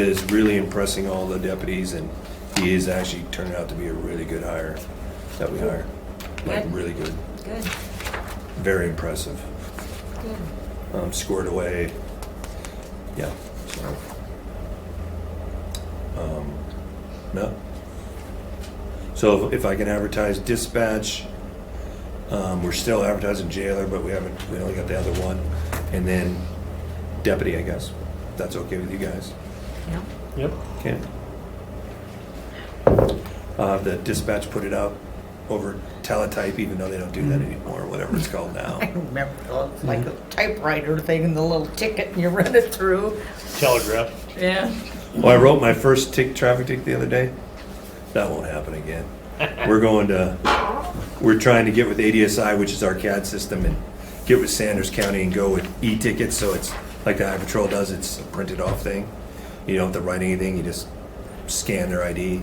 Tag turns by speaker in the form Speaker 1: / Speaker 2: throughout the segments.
Speaker 1: is really impressing all the deputies, and he is actually turning out to be a really good hire that we hire. Like,
Speaker 2: Good.
Speaker 1: really good,
Speaker 2: Good,
Speaker 1: very impressive.
Speaker 2: good.
Speaker 1: Um, scored away, yeah, so. Um, No. So if I can advertise dispatch, um, we're still advertising jailer, but we haven't, we only got the other one. And then deputy, I guess, if that's okay with you guys.
Speaker 2: Yeah.
Speaker 3: Yep.
Speaker 1: Okay. Uh, the dispatch put it out over teletype, even though they don't do that anymore, whatever it's called now.
Speaker 4: I remember, it was like a typewriter thing and the little ticket and you run it through.
Speaker 3: Telegraph.
Speaker 4: Yeah.
Speaker 1: Well, I wrote my first tick, traffic tick the other day. That won't happen again. We're going to, we're trying to get with ADSI, which is our CAD system, and get with Sanders County and go with e-tickets, so it's like the Highway Patrol does, it's a printed off thing. You don't have to write anything, you just scan their ID.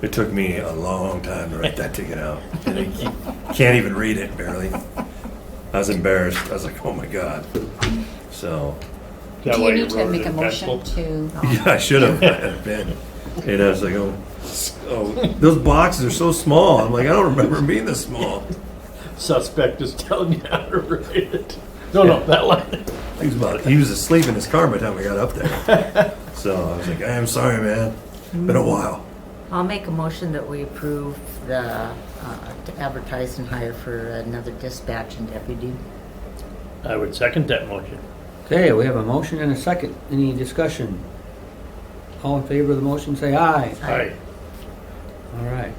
Speaker 1: It took me a long time to write that ticket out. And I keep- Can't even read it barely. I was embarrassed. I was like, oh my God. So,
Speaker 3: That
Speaker 2: Do
Speaker 3: way
Speaker 2: you need to
Speaker 3: wrote it
Speaker 2: make a
Speaker 3: in
Speaker 2: motion
Speaker 3: pencil.
Speaker 2: to,
Speaker 1: yeah, I should have. I had a pen. And I was like, oh, oh, those boxes are so small. I'm like, I don't remember them being this small.
Speaker 3: Suspect is telling you how to write it. No, no, that line.
Speaker 1: He was, about, he was asleep in his car by the time we got up there. So I was like, I am sorry, man. Been a while.
Speaker 4: I'll make a motion that we approve the, uh, to advertise and hire for another dispatch and deputy.
Speaker 3: I would second that motion.
Speaker 5: Okay, we have a motion and a second. Any discussion? All in favor of the motion, say aye.
Speaker 3: Aye.
Speaker 5: All right.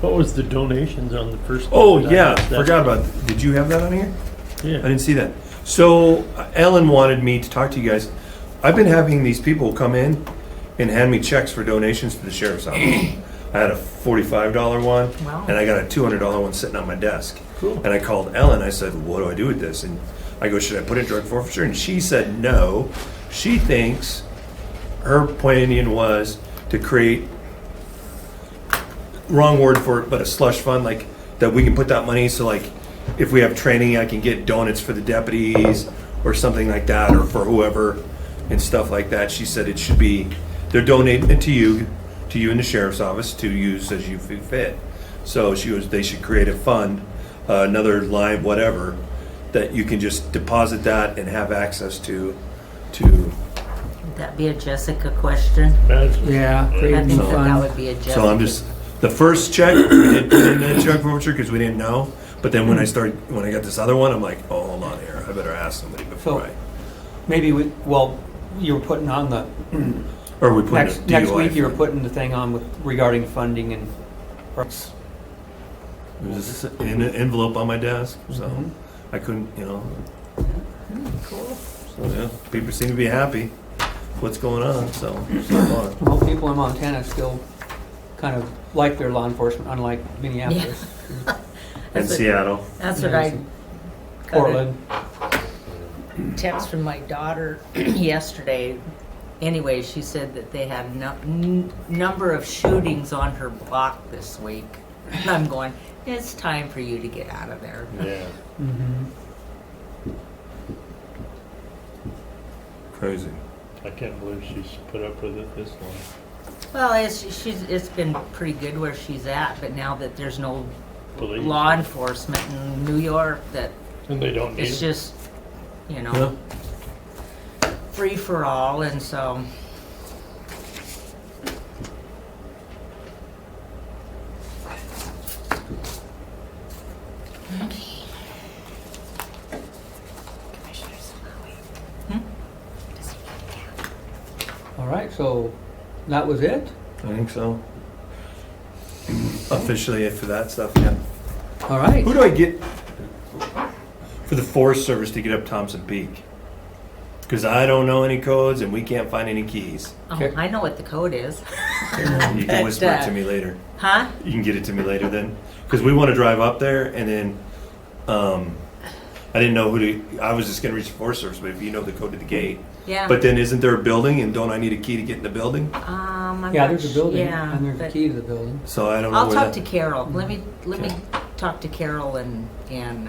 Speaker 3: What was the donations on the first?
Speaker 1: Oh,
Speaker 3: I
Speaker 1: yeah.
Speaker 3: missed that.
Speaker 1: Forgot about Did you have that on here? I
Speaker 3: Yeah.
Speaker 1: didn't see that. So uh, Ellen wanted me to talk to you guys. I've been having these people come in and hand me checks for donations to the sheriff's office. I had a forty-five dollar one,
Speaker 4: Wow.
Speaker 1: and I got a two hundred dollar one sitting on my desk.
Speaker 3: Cool.
Speaker 1: And I called Ellen. I said, "What do I do with this?" And I go, "Should I put it in drug forfeiture?" And she said, "No." She thinks her plan was to create wrong word for it, but a slush fund, like, that we can put that money, so like, if we have training, I can get donuts for the deputies, or something like that, or for whoever, and stuff like that. She said it should be, they're donating it to you, to you and the sheriff's office, to use as you feel fit. So she was, they should create a fund, uh, another line, whatever, that you can just deposit that and have access to, to,
Speaker 4: Would that be a Jessica question?
Speaker 3: That's-
Speaker 5: Yeah,
Speaker 4: I
Speaker 5: creating
Speaker 4: think that that
Speaker 5: fund.
Speaker 4: would be a Jessica.
Speaker 1: So I'm just, the first check, we didn't put in that check forfeiture because we didn't know. But then when I started, when I got this other one, I'm like, oh, hold on here. I better ask somebody before I,
Speaker 5: So- Maybe we, well, you were putting on the,
Speaker 1: or we put in a
Speaker 5: next, next
Speaker 1: DUI.
Speaker 5: week you were putting the thing on with regarding funding and.
Speaker 1: There's an envelope on my desk, so
Speaker 5: Mm-hmm.
Speaker 1: I couldn't, you know. Cool. So, yeah, people seem to be happy. What's going on, so. so on.
Speaker 5: Well, people in Montana still kind of like their law enforcement, unlike Minneapolis,
Speaker 1: In
Speaker 4: That's it.
Speaker 1: Seattle.
Speaker 4: That's what I
Speaker 5: Portland.
Speaker 4: text from my daughter yesterday. Anyway, she said that they had no, n- number of shootings on her block this week. And I'm going, it's time for you to get out of there.
Speaker 3: Yeah.
Speaker 5: Mhm.
Speaker 1: Crazy.
Speaker 3: I can't believe she's put up with it this long.
Speaker 4: Well, it's, she's, it's been pretty good where she's at, but now that there's no
Speaker 3: Police.
Speaker 4: law enforcement in New York, that
Speaker 3: And they don't need
Speaker 4: it's
Speaker 3: it.
Speaker 4: just, you
Speaker 1: Yeah.
Speaker 4: know, free for all. And so,
Speaker 5: All right, so that was it?
Speaker 1: I think so. Officially for that stuff, yeah.
Speaker 5: All right.
Speaker 1: Who do I get for the Forest Service to get up Thompson Peak? Because I don't know any codes and we can't find any keys.
Speaker 4: oh,
Speaker 5: Okay.
Speaker 4: I know what the code is.
Speaker 1: You can whisper it to
Speaker 4: uh,
Speaker 1: me later.
Speaker 4: Huh?
Speaker 1: You can get it to me later then. Because we want to drive up there and then, um, I didn't know who to, I was just going to reach the Forest Service, but if you know the code to the gate.
Speaker 4: Yeah.
Speaker 1: But then isn't there a building and don't I need a key to get in the building?
Speaker 4: Um, I'm
Speaker 5: Yeah,
Speaker 4: not
Speaker 5: there's a
Speaker 4: sh-
Speaker 5: building,
Speaker 4: Yeah,
Speaker 5: and there's a
Speaker 4: but
Speaker 5: key to the building.
Speaker 1: So I don't know
Speaker 4: I'll
Speaker 1: where that-
Speaker 4: talk to Carol. Let me let me talked to Carol and, and